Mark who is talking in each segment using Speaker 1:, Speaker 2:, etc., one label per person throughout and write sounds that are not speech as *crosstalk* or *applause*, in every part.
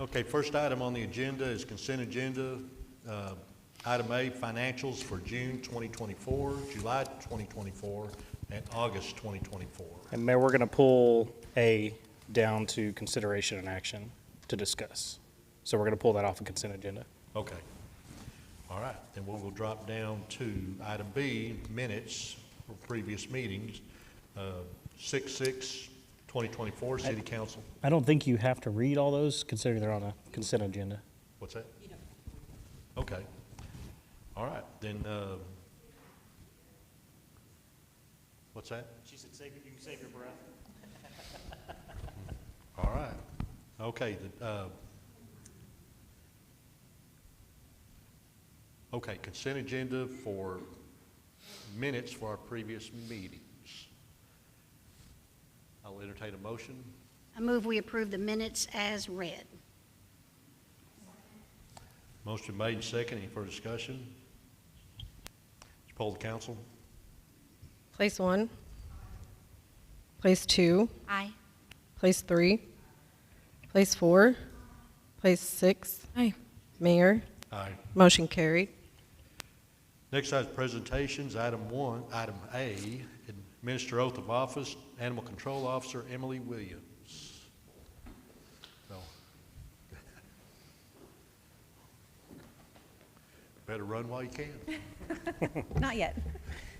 Speaker 1: Okay, first item on the agenda is consent agenda. Uh, Item A, financials for June 2024, July 2024, and August 2024.
Speaker 2: And Mayor, we're going to pull A down to consideration and action to discuss. So we're going to pull that off the consent agenda.
Speaker 1: Okay. All right, then we'll we'll drop down to item B, minutes for previous meetings, Uh, 6/6/2024, City Council.
Speaker 2: I don't think you have to read all those considering they're on a consent agenda.
Speaker 1: What's that? Okay. All right, then, uh, what's that?
Speaker 3: She said, save, you can save your breath.
Speaker 1: *laughs* All right. Okay, the, uh, okay, consent agenda for minutes for our previous meetings. I'll entertain a motion.
Speaker 4: I move we approve the minutes as read.
Speaker 1: Motion made and second. Any further discussion? Let's poll the council.
Speaker 5: Place one. Place two.
Speaker 4: Aye.
Speaker 5: Place three. Place four. Place six. Aye. Mayor.
Speaker 1: Aye.
Speaker 5: Motion carried.
Speaker 1: Next item is presentations, item one, item A, administer oath of office, Animal Control Officer Emily Williams. No. *laughs* Better run while you can.
Speaker 6: Not yet.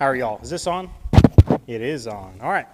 Speaker 2: How are y'all? Is this on? It is on. All right.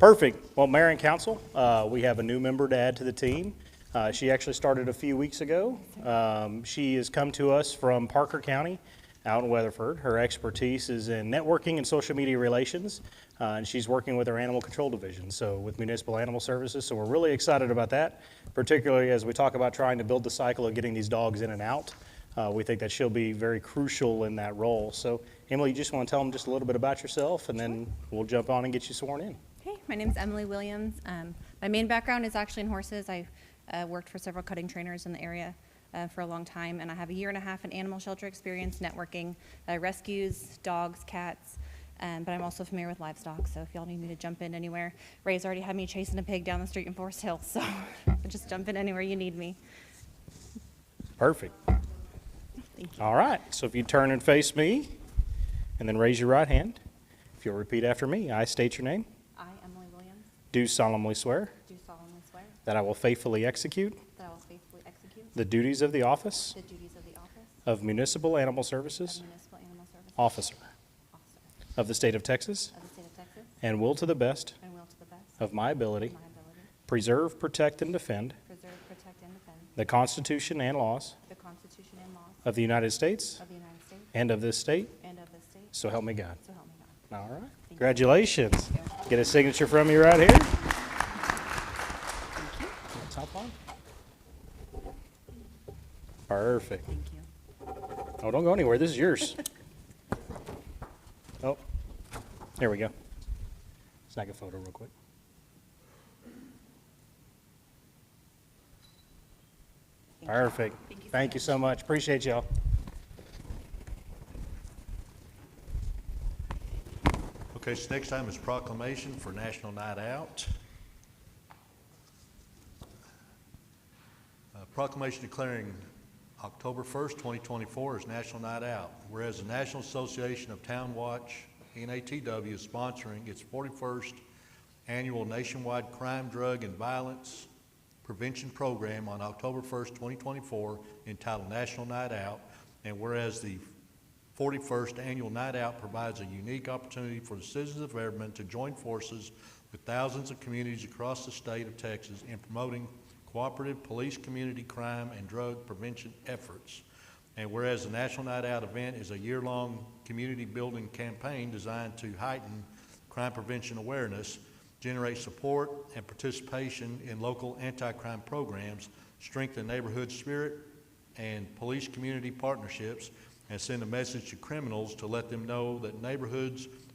Speaker 2: Perfect. Well, Mayor and Council, uh, we have a new member to add to the team. Uh, She actually started a few weeks ago. Um, She has come to us from Parker County out in Weatherford. Her expertise is in networking and social media relations, uh, and she's working with our Animal Control Division, so with Municipal Animal Services. So we're really excited about that, particularly as we talk about trying to build the cycle of getting these dogs in and out. Uh, we think that she'll be very crucial in that role. So, Emily, you just want to tell them just a little bit about yourself, and then we'll jump on and get you sworn in.
Speaker 6: Hey, my name's Emily Williams. Um, my main background is actually in horses. I uh, worked for several cutting trainers in the area uh, for a long time, and I have a year and a half in animal shelter experience, networking, uh, rescues, dogs, cats. Um, but I'm also familiar with livestock, so if y'all need me to jump in anywhere, Ray's already had me chasing a pig down the street in Forest Hill, so *laughs* just jump in anywhere you need me.
Speaker 2: Perfect. All right. So, if you turn and face me, and then raise your right hand, if you'll repeat after me, I state your name,
Speaker 6: I, Emily Williams,
Speaker 2: do solemnly swear
Speaker 6: do solemnly swear
Speaker 2: that I will faithfully execute
Speaker 6: that I will faithfully execute
Speaker 2: the duties of the office
Speaker 6: the duties of the office
Speaker 2: of Municipal Animal Services
Speaker 6: Municipal Animal Services
Speaker 2: Officer
Speaker 6: Officer
Speaker 2: of the State of Texas,
Speaker 6: of the State of Texas,
Speaker 2: and will to the best
Speaker 6: and will to the best
Speaker 2: of my ability
Speaker 6: My ability.
Speaker 2: preserve, protect, and defend
Speaker 6: Preserve, protect, and defend.
Speaker 2: the Constitution and laws
Speaker 6: The Constitution and laws.
Speaker 2: Of the United States
Speaker 6: Of the United States.
Speaker 2: and of this state,
Speaker 6: And of this state.
Speaker 2: so help me God.
Speaker 6: So help me God.
Speaker 2: All right. Congratulations. Get a signature from you right here. Let's hop on. Perfect.
Speaker 6: Thank you.
Speaker 2: Oh, don't go anywhere. This is *laughs* yours. Oh, there we go. Snag a photo real quick. Perfect. Thank you so much. Appreciate y'all.
Speaker 1: Okay, so next time is proclamation for National Night Out. Uh, Proclamation declaring October 1st, 2024 is National Night Out. Whereas the National Association of Town Watch, NATW, is sponsoring its 41st Annual Nationwide Crime, Drug, and Violence Prevention Program on October 1st, 2024, entitled National Night Out. And whereas the 41st Annual Night Out provides a unique opportunity for the citizens of Everman to join forces with thousands of communities across the state of Texas in promoting cooperative police, community crime, and drug prevention efforts. And whereas the National Night Out event is a year-long community-building campaign designed to heighten crime prevention awareness, generate support and participation in local anti-crime programs, strengthen neighborhood spirit and police community partnerships, and send a message to criminals to let them know that neighborhoods